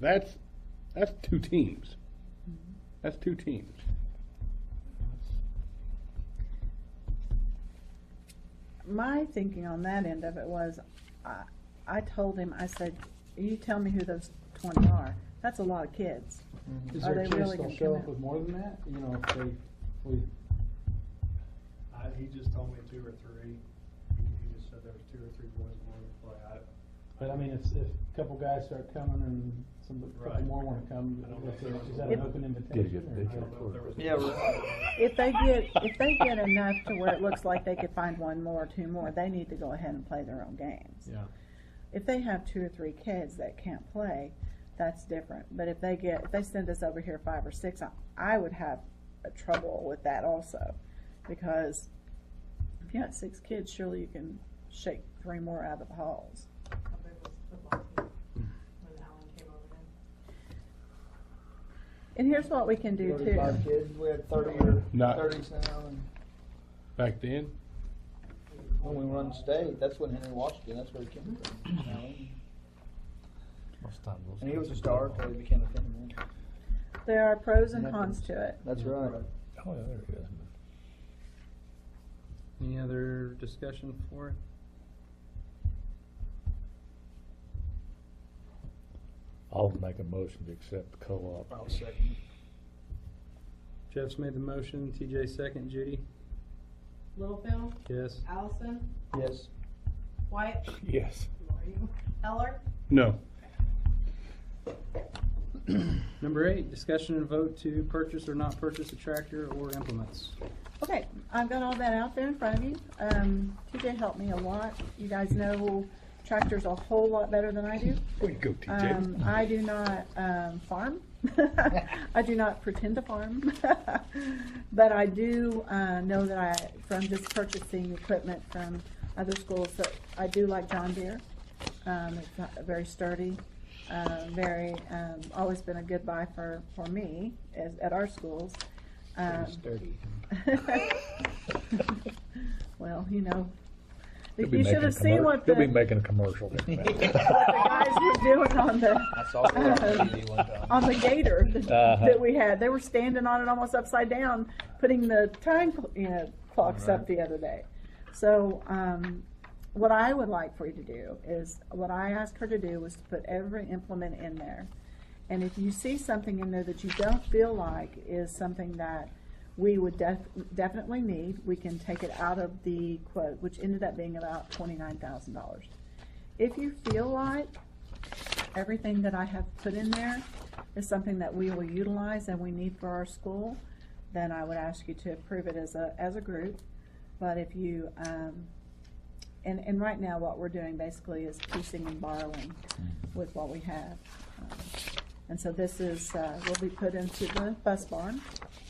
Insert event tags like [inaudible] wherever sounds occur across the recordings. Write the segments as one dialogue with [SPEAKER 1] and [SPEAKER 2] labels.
[SPEAKER 1] That's, that's two teams. That's two teams.
[SPEAKER 2] My thinking on that end of it was, I, I told him, I said, you tell me who those twenty are. That's a lot of kids.
[SPEAKER 3] Is
[SPEAKER 2] Are
[SPEAKER 3] there a
[SPEAKER 2] they
[SPEAKER 3] chance
[SPEAKER 2] really
[SPEAKER 3] they'll
[SPEAKER 2] gonna
[SPEAKER 3] show
[SPEAKER 2] come
[SPEAKER 3] up
[SPEAKER 2] out?
[SPEAKER 3] with more than that? You know, if they, we,
[SPEAKER 4] I, he just told me two or three. He he just said there was two or three boys wanting to play. I,
[SPEAKER 3] but I mean, if, if a couple guys start coming and some, a couple
[SPEAKER 4] Right.
[SPEAKER 3] more wanna come,
[SPEAKER 4] I don't know
[SPEAKER 3] is
[SPEAKER 4] if there
[SPEAKER 3] there-
[SPEAKER 4] was
[SPEAKER 3] is that
[SPEAKER 2] one.
[SPEAKER 3] an open
[SPEAKER 1] Did
[SPEAKER 3] invitation?
[SPEAKER 1] you-
[SPEAKER 3] or
[SPEAKER 1] did
[SPEAKER 3] not?
[SPEAKER 4] I don't know if there was.
[SPEAKER 5] Yeah,
[SPEAKER 4] [laughs]
[SPEAKER 5] we're-
[SPEAKER 2] If they get, if they get enough to where it looks like they could find one more, or two more, they need to go ahead and play their own games.
[SPEAKER 3] Yeah.
[SPEAKER 2] If they have two or three kids that can't play, that's different. But if they get, if they send us over here five or six, I, I would have a trouble with that also. Because if you got six kids, surely you can shake three more out of the halls.
[SPEAKER 6] How big was the football team when Alan came over in?
[SPEAKER 2] And here's what we can do too.
[SPEAKER 7] Thirty-five kids, we had thirty or
[SPEAKER 1] Not-
[SPEAKER 7] thirties now, and
[SPEAKER 1] Back then,
[SPEAKER 7] when we run state, that's when Henry Washington, that's where he came from. you know.
[SPEAKER 5] Most times those
[SPEAKER 7] And he was a
[SPEAKER 5] guys-
[SPEAKER 7] star until he became a penman.
[SPEAKER 2] There are pros and cons to it.
[SPEAKER 7] That's right.
[SPEAKER 5] Oh, yeah, there he is.
[SPEAKER 8] Any other discussion for it?
[SPEAKER 5] I'll make a motion to accept the co-op.
[SPEAKER 7] I'll second.
[SPEAKER 8] Jeff's made the motion, TJ second, Judy?
[SPEAKER 6] Littlefield,
[SPEAKER 8] Yes.
[SPEAKER 6] Allison,
[SPEAKER 7] Yes.
[SPEAKER 6] White,
[SPEAKER 1] yes.
[SPEAKER 6] Heller,
[SPEAKER 1] No.
[SPEAKER 8] Number eight, discussion and vote to purchase or not purchase a tractor or implements.
[SPEAKER 2] Okay, I've got all that out there in front of you. Um, TJ helped me a lot. You guys know tractors a whole lot better than I do.
[SPEAKER 1] Way to go, TJ.
[SPEAKER 2] Um,
[SPEAKER 5] [laughs]
[SPEAKER 2] I do not, um, farm. [laughs] I do not pretend to farm. [laughs] But I do, uh, know that I, from just purchasing equipment from other schools, that I do like John Deere. Um, it's not very sturdy, uh, very, um, always been a good buy for, for me as, at our schools. Um,
[SPEAKER 7] Uh,
[SPEAKER 2] [laughs] Well, you know,
[SPEAKER 5] He'll be
[SPEAKER 2] you should
[SPEAKER 5] making
[SPEAKER 2] have seen
[SPEAKER 5] commer-
[SPEAKER 2] what the
[SPEAKER 5] He'll be making a commercial.
[SPEAKER 2] [laughs] what the guys were doing on the.
[SPEAKER 7] I saw it on TV one time.
[SPEAKER 2] on the gator that,
[SPEAKER 5] Uh-huh.
[SPEAKER 2] that we had. They were standing on it almost upside down, putting the time cl- you know, clocks up the other day. So, um, what I would like for you to do is, what I asked her to do was to put every implement in there. And if you see something in there that you don't feel like is something that we would def- definitely need, we can take it out of the quote, which ended up being about twenty-nine thousand dollars. If you feel like everything that I have put in there is something that we will utilize and we need for our school, then I would ask you to approve it as a, as a group. But if you, um, and, and right now, what we're doing basically is piecing and borrowing with what we have. Um, And so this is, uh, will be put into the bus barn,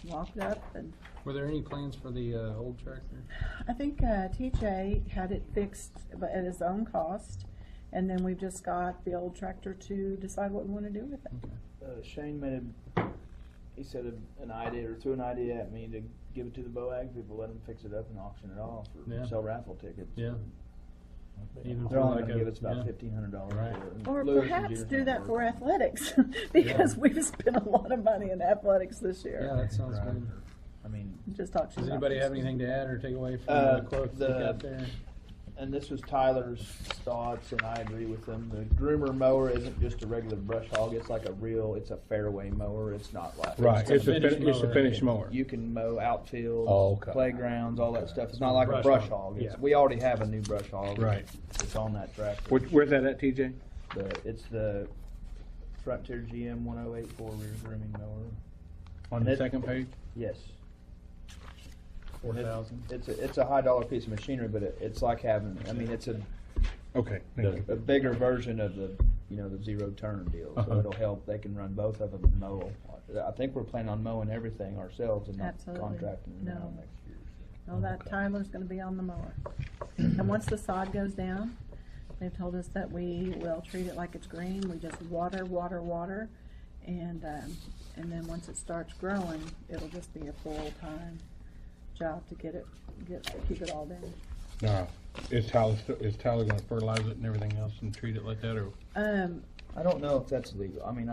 [SPEAKER 2] locked up, and
[SPEAKER 8] Were there any plans for the uh, old tractor?
[SPEAKER 2] I think uh, TJ had it fixed but at his own cost, and then we've just got the old tractor to decide what we want to do with it.
[SPEAKER 7] Uh, Shane made a, he said a- an idea, or threw an idea at me to give it to the BOAG people, let them fix it up and auction it off,
[SPEAKER 8] Yeah.
[SPEAKER 7] or sell raffle tickets.
[SPEAKER 8] Yeah. Even for
[SPEAKER 7] They're only
[SPEAKER 8] like
[SPEAKER 7] gonna
[SPEAKER 8] a-
[SPEAKER 7] give us
[SPEAKER 8] yeah.
[SPEAKER 7] about fifteen hundred dollars
[SPEAKER 8] Right.
[SPEAKER 7] for it.
[SPEAKER 2] Or
[SPEAKER 7] Lewis and
[SPEAKER 2] perhaps
[SPEAKER 7] Jeter's
[SPEAKER 2] do
[SPEAKER 7] not
[SPEAKER 2] that for
[SPEAKER 7] working.
[SPEAKER 2] athletics, [laughs] because we've spent a lot of money in athletics this
[SPEAKER 8] Yeah,
[SPEAKER 2] year.
[SPEAKER 8] that sounds
[SPEAKER 7] Right.
[SPEAKER 8] good.
[SPEAKER 7] I mean,
[SPEAKER 2] Just talk to you
[SPEAKER 8] Does
[SPEAKER 2] about
[SPEAKER 8] anybody
[SPEAKER 2] this.
[SPEAKER 8] have anything to add or take away from
[SPEAKER 7] Uh,
[SPEAKER 8] the quotes that you got
[SPEAKER 7] the-
[SPEAKER 8] there?
[SPEAKER 7] and this was Tyler's thoughts, and I agree with him. The groomer mower isn't just a regular brush hog; it's like a real, it's a fairway mower. It's not like
[SPEAKER 1] Right, it's a,
[SPEAKER 8] a finish
[SPEAKER 1] fin- it's a
[SPEAKER 8] mower.
[SPEAKER 1] finish mower.
[SPEAKER 7] You can mow outfields,
[SPEAKER 5] Oh, okay.
[SPEAKER 7] playgrounds, all that stuff. It's not like
[SPEAKER 8] Brush
[SPEAKER 7] a brush
[SPEAKER 8] hog,
[SPEAKER 7] hog. It's,
[SPEAKER 8] yeah.
[SPEAKER 7] We already have a new brush hog.
[SPEAKER 1] Right.
[SPEAKER 7] It's on that tractor.
[SPEAKER 1] Where- Where's that at, TJ?
[SPEAKER 7] The, it's the Frontier GM 1084 rear grooming mower.
[SPEAKER 1] On the
[SPEAKER 7] It-
[SPEAKER 1] second page?
[SPEAKER 7] Yes.
[SPEAKER 8] Four thousand?
[SPEAKER 7] It's a, it's a high dollar piece of machinery, but it, it's like having, I mean, it's a,
[SPEAKER 1] Okay. thank you.
[SPEAKER 7] a bigger version of the, you know, the zero turn deal. So
[SPEAKER 5] Uh-huh.
[SPEAKER 7] it'll help. They can run both of them and mow. 'em. I think we're planning on mowing everything ourselves and not
[SPEAKER 2] Absolutely.
[SPEAKER 7] contracting them out
[SPEAKER 2] No.
[SPEAKER 7] next year.
[SPEAKER 2] Well, Oh, that Tyler's gonna be on the mower. And once the sod goes down, they've told us that we will treat it like it's green, we just water, water, water. And, um, and then once it starts growing, it'll just be a full-time job to get it, get, keep it all down.
[SPEAKER 1] No, is Tyler, st- is Tyler gonna fertilize it and everything else and treat it like that, or?
[SPEAKER 2] Um,
[SPEAKER 7] I don't know if that's legal. I mean,